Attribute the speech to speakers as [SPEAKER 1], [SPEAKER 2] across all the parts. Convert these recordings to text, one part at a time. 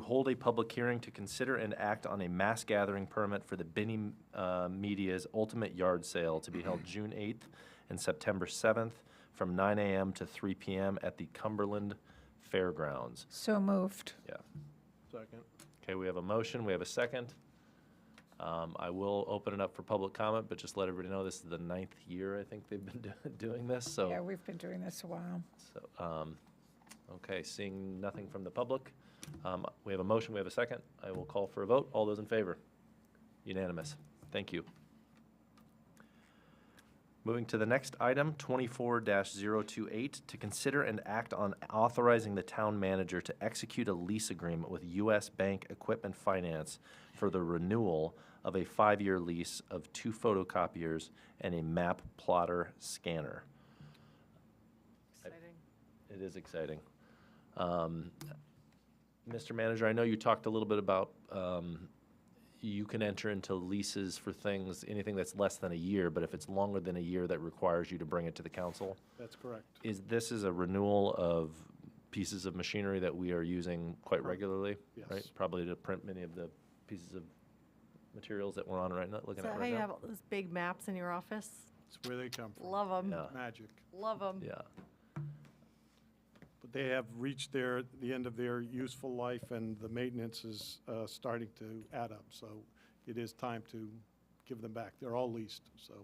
[SPEAKER 1] hold a public hearing to consider and act on a mass gathering permit for the Benny uh, Media's Ultimate Yard Sale to be held June 8th and September 7th from 9 a.m. to 3 p.m. at the Cumberland Fairgrounds.
[SPEAKER 2] So moved.
[SPEAKER 1] Yeah.
[SPEAKER 3] Second.
[SPEAKER 1] Okay, we have a motion, we have a second. Um, I will open it up for public comment, but just let everybody know, this is the ninth year, I think, they've been do- doing this, so.
[SPEAKER 2] Yeah, we've been doing this a while.
[SPEAKER 1] So, um, okay, seeing nothing from the public, um, we have a motion, we have a second. I will call for a vote. All those in favor? Unanimous. Thank you. Moving to the next item, twenty-four 28 to consider and act on authorizing the town manager to execute a lease agreement with U.S. Bank Equipment Finance for the renewal of a five-year lease of two photocopiers and a map plotter scanner.
[SPEAKER 4] Exciting.
[SPEAKER 1] It is exciting. Um, Mr. Manager, I know you talked a little bit about um, you can enter into leases for things, anything that's less than a year, but if it's longer than a year, that requires you to bring it to the council.
[SPEAKER 3] That's correct.
[SPEAKER 1] Is, this is a renewal of pieces of machinery that we are using quite regularly, right?
[SPEAKER 3] Yes.
[SPEAKER 1] Probably to print many of the pieces of materials that we're on right now,
[SPEAKER 4] Is
[SPEAKER 1] looking
[SPEAKER 4] that
[SPEAKER 1] at
[SPEAKER 4] how
[SPEAKER 1] right
[SPEAKER 4] you have
[SPEAKER 1] now.
[SPEAKER 4] all those big maps in your office?
[SPEAKER 3] It's where they come from.
[SPEAKER 4] Love them,
[SPEAKER 1] Yeah.
[SPEAKER 3] Magic.
[SPEAKER 4] love them.
[SPEAKER 1] Yeah,
[SPEAKER 3] But they have reached their, the end of their useful life, and the maintenance is uh, starting to add up. So it is time to give them back. They're all leased, so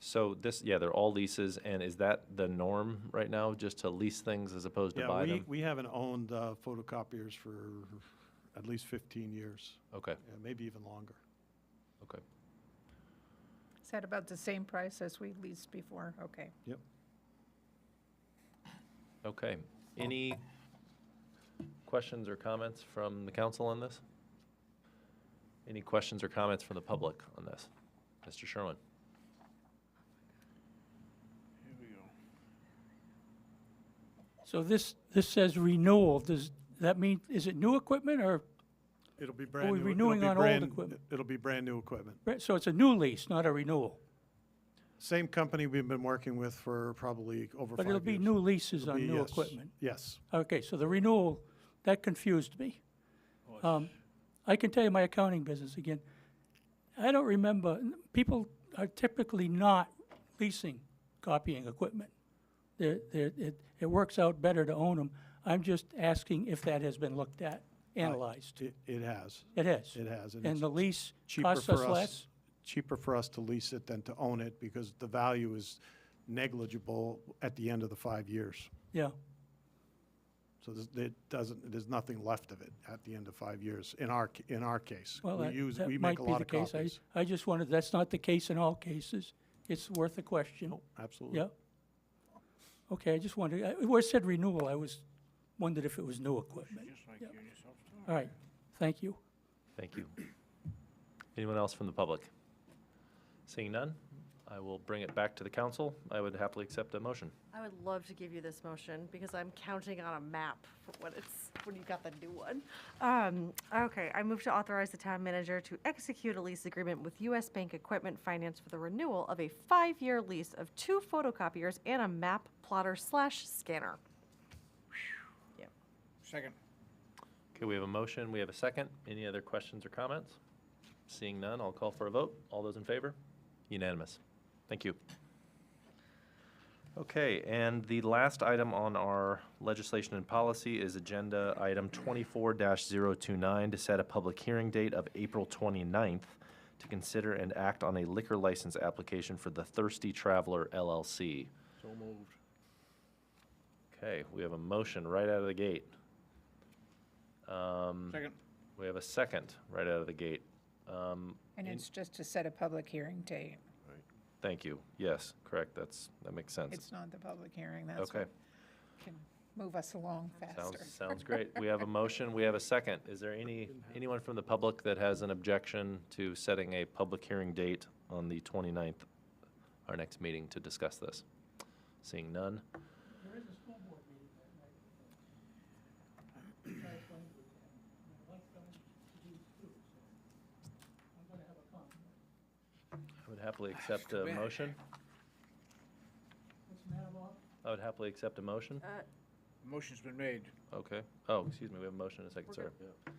[SPEAKER 1] so this, yeah, they're all leases, and is that the norm right now, just to lease things as opposed to
[SPEAKER 3] Yeah,
[SPEAKER 1] buy
[SPEAKER 3] we-
[SPEAKER 1] them?
[SPEAKER 3] We haven't owned uh, photocopiers for at least 15 years,
[SPEAKER 1] Okay,
[SPEAKER 3] yeah, maybe even longer.
[SPEAKER 1] okay.
[SPEAKER 2] Is that about the same price as we leased before? Okay.
[SPEAKER 1] Okay. Any questions or comments from the council on this? Any questions or comments from the public on this? Mr. Sherwin?
[SPEAKER 5] So this, this says renewal, does that mean, is it new equipment or,
[SPEAKER 3] It'll be brand new.
[SPEAKER 5] we
[SPEAKER 3] it'll
[SPEAKER 5] renewing
[SPEAKER 3] be
[SPEAKER 5] on old
[SPEAKER 3] brand-
[SPEAKER 5] equipment?
[SPEAKER 3] It'll be brand-new equipment.
[SPEAKER 5] so it's a new lease, not a renewal?
[SPEAKER 3] Same company we've been working with for probably over five years.
[SPEAKER 5] But it'll be new leases
[SPEAKER 3] It'll
[SPEAKER 5] on
[SPEAKER 3] be-
[SPEAKER 5] new
[SPEAKER 3] yes,
[SPEAKER 5] equipment?
[SPEAKER 3] Yes.
[SPEAKER 5] Okay, so the renewal, that confused me.
[SPEAKER 3] Oh,
[SPEAKER 5] Um, I can tell you my accounting business again. I don't remember, people are typically not leasing copying equipment. They're, they're, it, it works out better to own them. I'm just asking if that has been looked at, analyzed.
[SPEAKER 3] It, it has,
[SPEAKER 5] It has.
[SPEAKER 3] it has.
[SPEAKER 5] And
[SPEAKER 3] it's
[SPEAKER 5] the lease
[SPEAKER 3] cheaper
[SPEAKER 5] costs
[SPEAKER 3] for
[SPEAKER 5] us less?
[SPEAKER 3] Cheaper for us to lease it than to own it because the value is negligible at the end of the five years.
[SPEAKER 5] Yeah,
[SPEAKER 3] So there's- it doesn't, there's nothing left of it at the end of five years, in our, ca- in our case.
[SPEAKER 5] well,
[SPEAKER 3] We
[SPEAKER 5] that,
[SPEAKER 3] use-
[SPEAKER 5] that
[SPEAKER 3] we
[SPEAKER 5] might
[SPEAKER 3] make a
[SPEAKER 5] be
[SPEAKER 3] lot
[SPEAKER 5] the
[SPEAKER 3] of
[SPEAKER 5] case. I,
[SPEAKER 3] copies.
[SPEAKER 5] I just wanted, that's not the case in all cases. It's worth a question.
[SPEAKER 3] Absolutely.
[SPEAKER 5] Yeah? Okay, I just wondered, I- where it said renewal, I was, wondered if it was new equipment. Yeah. All right, thank you.
[SPEAKER 1] Thank you. Anyone else from the public? Seeing none, I will bring it back to the council. I would happily accept a motion.
[SPEAKER 4] I would love to give you this motion because I'm counting on a map for when it's, when you got the new one. Um, okay, I move to authorize the town manager to execute a lease agreement with US Bank Equipment Finance for the renewal of a five-year lease of two photocopiers and a map plotter slash scanner.
[SPEAKER 6] Second.
[SPEAKER 1] Okay, we have a motion, we have a second. Any other questions or comments? Seeing none, I'll call for a vote. All those in favor? Unanimous. Thank you. Okay, and the last item on our legislation and policy is Agenda Item 24-029 to set a public hearing date of April 29th to consider and act on a liquor license application for the Thirsty Traveler LLC.
[SPEAKER 6] So moved.
[SPEAKER 1] Okay, we have a motion right out of the gate. Um,
[SPEAKER 6] Second.
[SPEAKER 1] we have a second right out of the gate. Um,
[SPEAKER 2] And it's just to set a public hearing date.
[SPEAKER 1] Thank you. Yes, correct. That's, that makes sense.
[SPEAKER 2] It's not the public hearing. That's
[SPEAKER 1] Okay,
[SPEAKER 2] what can move us along
[SPEAKER 1] sounds,
[SPEAKER 2] faster.
[SPEAKER 1] sounds great. We have a motion, we have a second. Is there any, anyone from the public that has an objection to setting a public hearing date on the 29th, our next meeting, to discuss this? Seeing none? I would happily accept a
[SPEAKER 6] Too bad.
[SPEAKER 1] motion. I would happily accept a motion.
[SPEAKER 6] Motion's been made.
[SPEAKER 1] Okay. Oh, excuse me, we have a motion and a second,
[SPEAKER 4] We're
[SPEAKER 1] sir.
[SPEAKER 4] good.